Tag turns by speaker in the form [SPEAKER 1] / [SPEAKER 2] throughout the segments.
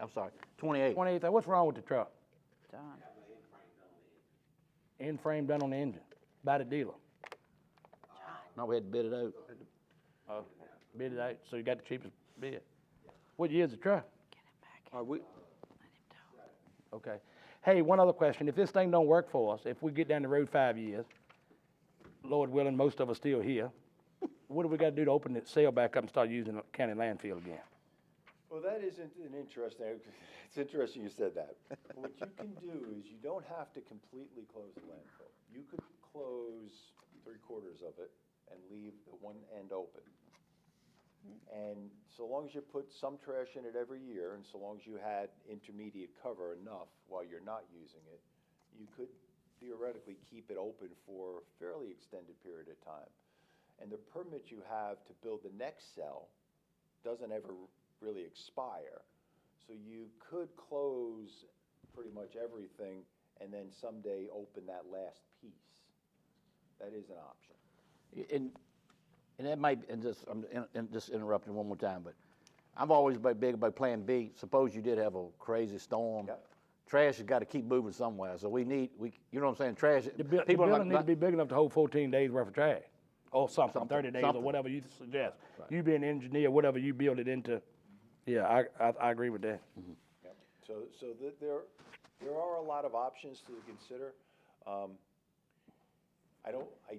[SPEAKER 1] I'm sorry, 28.
[SPEAKER 2] Twenty-eight, what's wrong with the truck?
[SPEAKER 3] Done.
[SPEAKER 2] End frame done on the engine, by the dealer.
[SPEAKER 1] No, we had to bid it out.
[SPEAKER 2] Oh. Bid it out, so you got the cheapest bid. What year's the truck?
[SPEAKER 3] Get him back.
[SPEAKER 1] Are we,
[SPEAKER 3] Let him down.
[SPEAKER 2] Okay. Hey, one other question. If this thing don't work for us, if we get down the road five years, Lord willing, most of us still here, what do we gotta do to open the sale back up and start using the county landfill again?
[SPEAKER 4] Well, that isn't an interesting, it's interesting you said that. What you can do is you don't have to completely close the landfill. You could close three quarters of it and leave the one end open. And so long as you put some trash in it every year, and so long as you had intermediate cover enough while you're not using it, you could theoretically keep it open for a fairly extended period of time. And the permit you have to build the next cell doesn't ever really expire. So you could close pretty much everything and then someday open that last piece. That is an option.
[SPEAKER 1] and, and that might, and just, I'm in- in- just interrupting one more time, but I've always been big about Plan B. Suppose you did have a crazy storm.
[SPEAKER 4] Yeah.
[SPEAKER 1] Trash has got to keep moving somewhere, so we need, we, you know what I'm saying, trash.
[SPEAKER 2] The bu- the
[SPEAKER 1] people are not-
[SPEAKER 2] building need to
[SPEAKER 1] not-
[SPEAKER 2] be big enough to hold fourteen days worth of trash, or something,
[SPEAKER 1] Something,
[SPEAKER 2] thirty days, or
[SPEAKER 1] something.
[SPEAKER 2] whatever you suggest. You be an engineer, whatever you build it into, yeah, I, I, I agree with that.
[SPEAKER 4] Yep. So, so that there, there are a lot of options to consider. Um, I don't, I,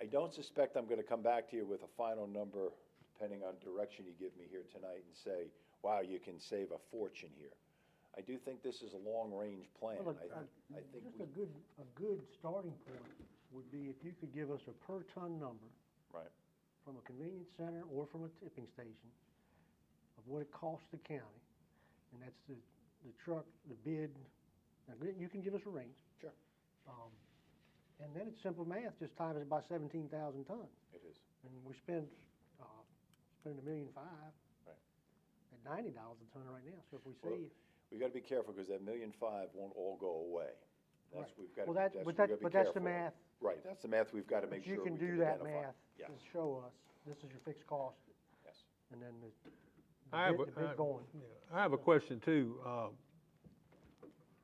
[SPEAKER 4] I don't suspect I'm gonna come back to you with a final number, depending on direction you give me here tonight, and say, wow, you can save a fortune here. I do think this is a long-range plan.
[SPEAKER 5] Well,
[SPEAKER 4] I, I think
[SPEAKER 5] Just
[SPEAKER 4] we,
[SPEAKER 5] a good, a good starting point would be if you could give us a per ton number
[SPEAKER 4] right.
[SPEAKER 5] from a convenience center or from a tipping station of what it costs the county, and that's the, the truck, the bid, now, gr- you can give us a range.
[SPEAKER 4] Sure.
[SPEAKER 5] Um, And then it's simple math, just times it by seventeen thousand tons,
[SPEAKER 4] It is.
[SPEAKER 5] and we spend, uh, spend a million five
[SPEAKER 4] Right.
[SPEAKER 5] at ninety dollars a ton right now, so if we
[SPEAKER 4] Well,
[SPEAKER 5] save.
[SPEAKER 4] We gotta be careful, because that million five won't all go away. That's,
[SPEAKER 5] Right.
[SPEAKER 4] we've gotta,
[SPEAKER 5] Well,
[SPEAKER 4] that's,
[SPEAKER 5] that-
[SPEAKER 4] we
[SPEAKER 5] but
[SPEAKER 4] gotta
[SPEAKER 5] that-
[SPEAKER 4] be
[SPEAKER 5] but that's the
[SPEAKER 4] careful.
[SPEAKER 5] math.
[SPEAKER 4] Right, that's the math we've gotta make
[SPEAKER 5] But
[SPEAKER 4] sure
[SPEAKER 5] you
[SPEAKER 4] we
[SPEAKER 5] can
[SPEAKER 4] can
[SPEAKER 5] do that
[SPEAKER 4] identify.
[SPEAKER 5] math,
[SPEAKER 4] Yes,
[SPEAKER 5] just show us, this is your fixed cost,
[SPEAKER 4] yes.
[SPEAKER 5] and then the- the
[SPEAKER 6] I have,
[SPEAKER 5] bid,
[SPEAKER 6] a-
[SPEAKER 5] the
[SPEAKER 6] I-
[SPEAKER 5] bid going.
[SPEAKER 6] yeah, I have a question too. Uh,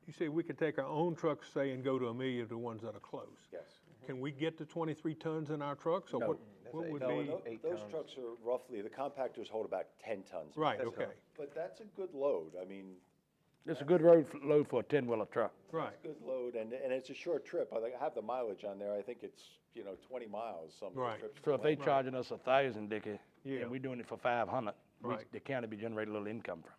[SPEAKER 6] You say we could take our own trucks, say, and go to a million to ones that are close.
[SPEAKER 4] Yes.
[SPEAKER 6] Can we get to twenty-three tons in our trucks, or what, what would
[SPEAKER 4] No, and
[SPEAKER 6] be?
[SPEAKER 4] tho- those trucks are roughly, the compactors hold about ten tons.
[SPEAKER 6] Right,
[SPEAKER 4] That's-
[SPEAKER 6] okay.
[SPEAKER 4] But that's a good load, I mean,
[SPEAKER 2] It's a good road, f- load for a ten-wheeler truck.
[SPEAKER 6] Right,
[SPEAKER 4] good load, and, and it's a short trip, I think- I have the mileage on there, I think it's, you know, twenty miles some of the
[SPEAKER 6] Right.
[SPEAKER 4] trips.
[SPEAKER 2] So if they charging us a thousand, Dickie,
[SPEAKER 6] Yeah.
[SPEAKER 2] and we doing it for five hundred,
[SPEAKER 6] Right.
[SPEAKER 2] the county be generating a little income from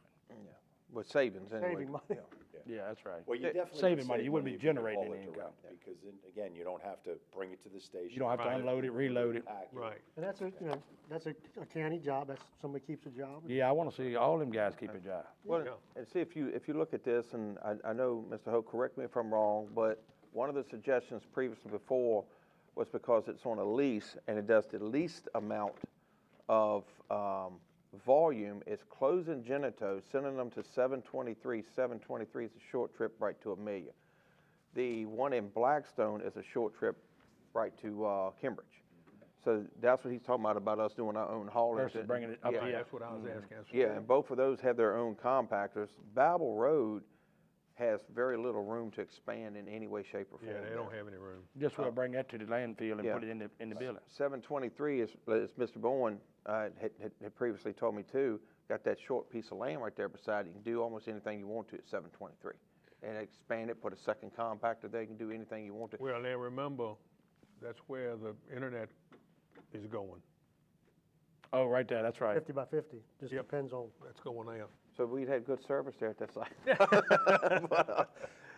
[SPEAKER 7] With savings anyway.
[SPEAKER 5] Saving money.
[SPEAKER 2] it. Yeah, that's right.
[SPEAKER 4] Well, you definitely. would
[SPEAKER 2] Eh, saving money,
[SPEAKER 4] save
[SPEAKER 2] you wouldn't be
[SPEAKER 4] if could haul
[SPEAKER 2] generating
[SPEAKER 4] it
[SPEAKER 2] any income.
[SPEAKER 4] direct, Because then, again, you don't have to bring it to the station.
[SPEAKER 2] You don't have to
[SPEAKER 6] Right.
[SPEAKER 2] unload it, reload it.
[SPEAKER 4] pack
[SPEAKER 6] right.
[SPEAKER 5] And that's a, you know, that's a a county job, that's, somebody keeps a job.
[SPEAKER 2] Yeah, I wanna see all them guys keep a job.
[SPEAKER 6] Yeah.
[SPEAKER 7] Well, and see, if you, if you look at this, and I, I know, Mr. Hope, correct me if I'm wrong, but one of the suggestions previously before was because it's on a lease and it does the least amount of, um, volume, it's closing Genito, sending them to seven twenty-three, seven twenty-three is a short trip right to Amelia. The one in Blackstone is a short trip right to, uh, Cambridge. So that's what he's talking about, about us doing our own haulage.
[SPEAKER 2] Versus
[SPEAKER 7] and-
[SPEAKER 2] bringing it up
[SPEAKER 7] yeah.
[SPEAKER 2] here.
[SPEAKER 6] That's what I was asking. That's-
[SPEAKER 7] Yeah, and both of those have their own compactors. Babel Road has very little room to expand in any way, shape, or form.
[SPEAKER 6] Yeah, they don't have any room.
[SPEAKER 2] Just we'll bring that to the landfill and
[SPEAKER 7] Yeah.
[SPEAKER 2] put it in the, in the building.
[SPEAKER 7] Seven twenty-three is, as Mr. Bowen uh, had, had- had previously told me too, got that short piece of land right there beside it. You can do almost anything you want to at seven twenty-three. And expand it, put a second compactor there, you can do anything you want to.
[SPEAKER 6] Well, now remember, that's where the internet is going.
[SPEAKER 2] Oh, right there, that's right.
[SPEAKER 5] Fifty by fifty, just
[SPEAKER 6] Yep.
[SPEAKER 5] depends on,
[SPEAKER 6] That's going there.
[SPEAKER 7] So we'd had good service there at that site. But, uh,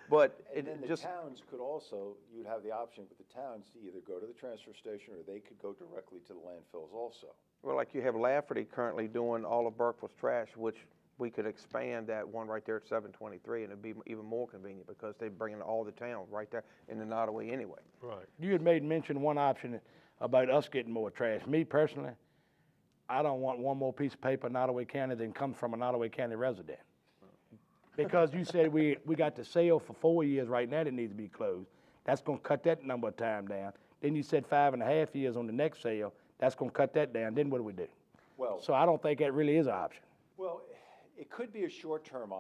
[SPEAKER 7] But
[SPEAKER 4] And then
[SPEAKER 7] it
[SPEAKER 4] the
[SPEAKER 7] just,
[SPEAKER 4] towns could also, you'd have the option with the towns to either go to the transfer station or they could go directly to the landfills also.
[SPEAKER 7] Well, like you have Lafferty currently doing all of Burkeville's trash, which we could expand that one right there at seven twenty-three, and it'd be even more convenient because they bring in all the towns right there in the Nottaway anyway.
[SPEAKER 6] Right.
[SPEAKER 2] You had made mention one option about us getting more trash. Me personally, I don't want one more piece of paper in Ottaway County than comes from an Ottaway County resident. Because you said we, we got the sale for four years right now that needs to be closed. That's gonna cut that number of time down. Then you said five and a half years on the next sale, that's gonna cut that down. Then what do we do?
[SPEAKER 4] Well-
[SPEAKER 2] So I don't think that really is an option.
[SPEAKER 4] Well, it could be a short-term